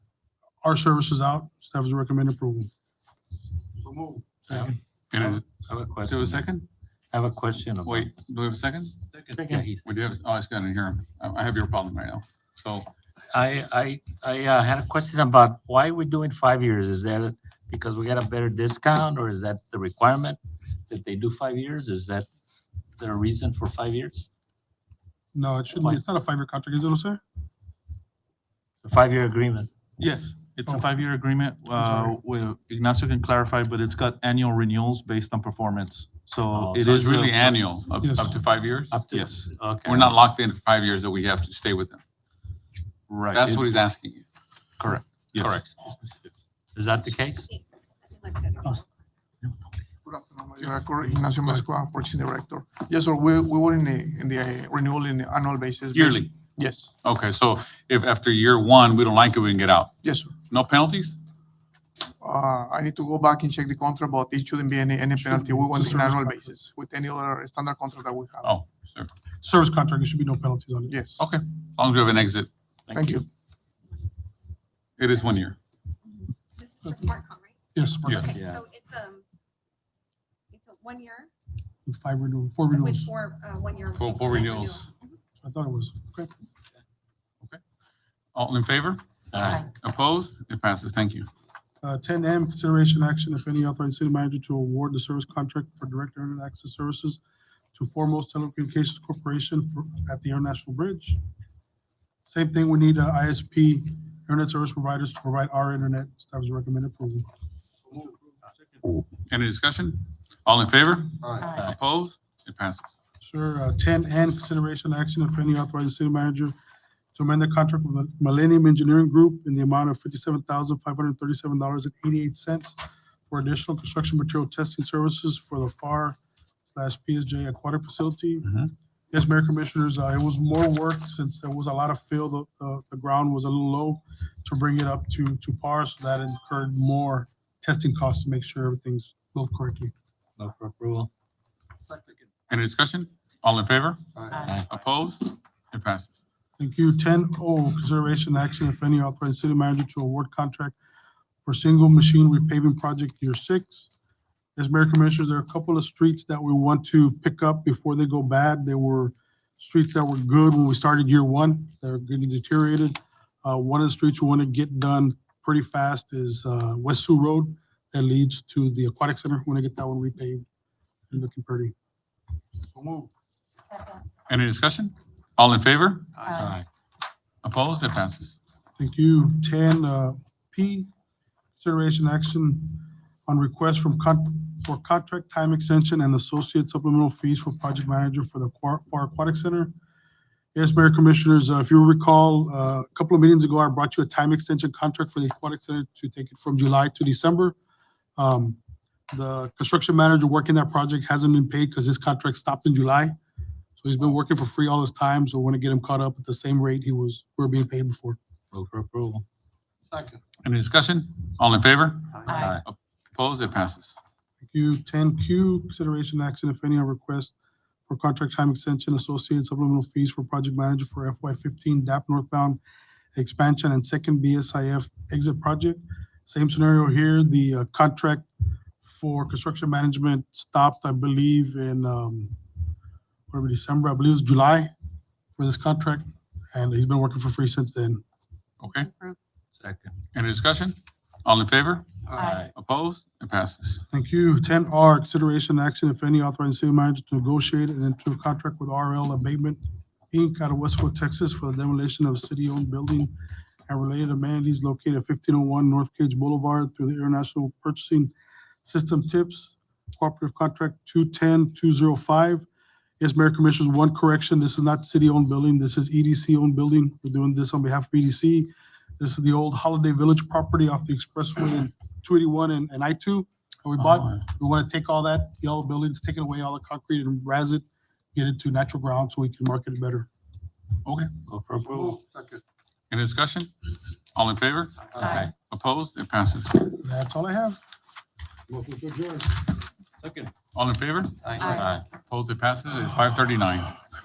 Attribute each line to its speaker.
Speaker 1: our services out. Staff is recommend approval.
Speaker 2: So move.
Speaker 3: Second. Oh.
Speaker 4: And
Speaker 3: I have a
Speaker 4: do we have
Speaker 3: question.
Speaker 4: a second?
Speaker 3: I have a question. about-
Speaker 4: Wait, do we have a second?
Speaker 3: Yeah, he's-
Speaker 4: We do have, oh, I just got in here. I I have your problem right now. So
Speaker 3: I, I, I uh, had a question about why we're doing five years. Is that because we got a better discount or is that the requirement that they do five years? Is that the reason for five years?
Speaker 1: No, it shouldn't be. It's not a five-year contract, is it, Jose?
Speaker 3: It's a five-year agreement.
Speaker 5: Yes, it's
Speaker 1: Oh.
Speaker 5: a five-year agreement.
Speaker 1: I'm sorry.
Speaker 5: uh, with- Ignacio can clarify, but it's got annual renewals based on performance.
Speaker 3: Oh,
Speaker 5: So it
Speaker 4: so it's
Speaker 5: is uh,
Speaker 4: really
Speaker 5: a-
Speaker 4: annual, up
Speaker 1: Yes.
Speaker 4: up to five years?
Speaker 3: Up to-
Speaker 5: Yes.
Speaker 3: Okay.
Speaker 4: We're not locked into five years that we have to stay with them.
Speaker 5: Right.
Speaker 4: That's
Speaker 5: it-
Speaker 4: what he's asking you.
Speaker 5: Correct. yes.
Speaker 4: Correct.
Speaker 3: Is that the case?
Speaker 2: Good afternoon, Mayor Acor, Ignacio Mascua, Purchasing Director. Yes, sir, we, we were in the, in the uh, renewal in the annual basis.
Speaker 4: Yearly.
Speaker 2: Yes,
Speaker 4: Okay, so if after year one, we don't like it, we can get out.
Speaker 2: yes, sir.
Speaker 4: No penalties?
Speaker 2: Uh, I need to go back and check the contract, but it shouldn't be any, any
Speaker 1: Shouldn't be.
Speaker 2: penalty. We
Speaker 1: It's a
Speaker 2: want it on
Speaker 1: service
Speaker 2: annual
Speaker 1: contract.
Speaker 2: basis with any other standard contract that we have.
Speaker 4: Oh, sir. As
Speaker 1: Service contract, there should be no penalties on it.
Speaker 2: Yes.
Speaker 4: Okay. long as we have an exit,
Speaker 2: Thank you.
Speaker 4: it is one year.
Speaker 6: This is for SmartCom, right?
Speaker 1: Yes, Mark,
Speaker 4: Yeah.
Speaker 6: Okay,
Speaker 3: Yeah.
Speaker 6: so it's, um, it's a one year
Speaker 1: with five renewal, four
Speaker 6: with
Speaker 1: renewals.
Speaker 6: four, uh, one year.
Speaker 4: Four- four
Speaker 6: renewal.
Speaker 4: renewals.
Speaker 1: I thought it was. Okay.
Speaker 4: All in favor?
Speaker 3: Uh,
Speaker 4: Opposed? It passes. Thank you.
Speaker 1: Uh, Ten M, consideration action, if any, authorized city manager to award the service contract for direct internet access services to Foremost Telecommunications Corporation for, at the International Bridge. Same thing, we need uh, ISP, internet service providers to provide our internet. Staff is recommend approval.
Speaker 4: Any discussion? All in favor?
Speaker 3: Aye.
Speaker 4: Opposed? It passes.
Speaker 1: Sure, uh, ten N, consideration action, if any, authorized city manager to amend the contract with Millennium Engineering Group in the amount of fifty-seven thousand, five hundred and thirty-seven dollars and eighty-eight cents for additional construction material testing services for the FAR slash PSJ aquatic facility.
Speaker 4: Mhm.
Speaker 1: Yes, Mayor Commissioners, uh, it was more work since there was a lot of fill, the, the, the ground was a little low to bring it up to, to par, so that incurred more testing costs to make sure everything's built correctly.
Speaker 3: No for approval.
Speaker 4: Any discussion? All in favor?
Speaker 3: Aye.
Speaker 4: Opposed? It passes.
Speaker 1: Thank you. Ten O, consideration action, if any, authorized city manager to award contract for single machine repaving project year six. As Mayor Commissioners, there are a couple of streets that we want to pick up before they go bad. They were streets that were good when we started year one. They're getting deteriorated. Uh, one of the streets we want to get done pretty fast is, uh, West Sioux Road that leads to the Aquatic Center. We want to get that one repaved and looking pretty.
Speaker 4: Any discussion? All in favor?
Speaker 3: Aye.
Speaker 4: Opposed? It passes.
Speaker 1: Thank you. Ten uh, P, consideration action on request from con, for contract time extension and associate supplemental fees for project manager for the Aqua- for Aquatic Center. Yes, Mayor Commissioners, uh, if you recall, uh, a couple of meetings ago, I brought you a time extension contract for the Aquatic Center to take it from July to December. Um, The construction manager working that project hasn't been paid because his contract stopped in July. So he's been working for free all this time, so we want to get him caught up at the same rate he was, we were being paid before.
Speaker 3: Move for approval.
Speaker 2: Second.
Speaker 4: Any discussion? All in favor?
Speaker 3: Aye.
Speaker 4: Opposed? It passes.
Speaker 1: Thank you. Ten Q, consideration action, if any, on request for contract time extension associated supplemental fees for project manager for FY fifteen DAP northbound expansion and second BSIF exit project. Same scenario here, the uh, contract for construction management stopped, I believe, in, um, whatever, December, I believe it's July for this contract, and he's been working for free since then.
Speaker 4: Okay.
Speaker 3: Second.
Speaker 4: Any discussion? All in favor?
Speaker 3: Aye.
Speaker 4: Opposed? It passes.
Speaker 1: Thank you. Ten R, consideration action, if any, authorizing city manager to negotiate and enter a contract with RL Abatement Inc. out of Westwood, Texas for the demolition of a city-owned building and related amenities located at fifteen oh one North Cage Boulevard through the International Purchasing System Tips Cooperative Contract two ten two zero five. Yes, Mayor Commissioners, one correction, this is not city-owned building, this is EDC-owned building. We're doing this on behalf of EDC. This is the old Holiday Village property off the expressway in two eighty-one and, and I two that we bought. We want to take all that yellow buildings, take it away, all the concrete and razz it, get it to natural ground so we can market it better.
Speaker 4: Okay.
Speaker 3: Move for approval.
Speaker 4: Any discussion? All in favor?
Speaker 3: Aye.
Speaker 4: Opposed? It passes.
Speaker 1: That's all I have.
Speaker 4: All in favor?
Speaker 3: Aye.
Speaker 4: Opposed? It passes. It's five thirty-nine.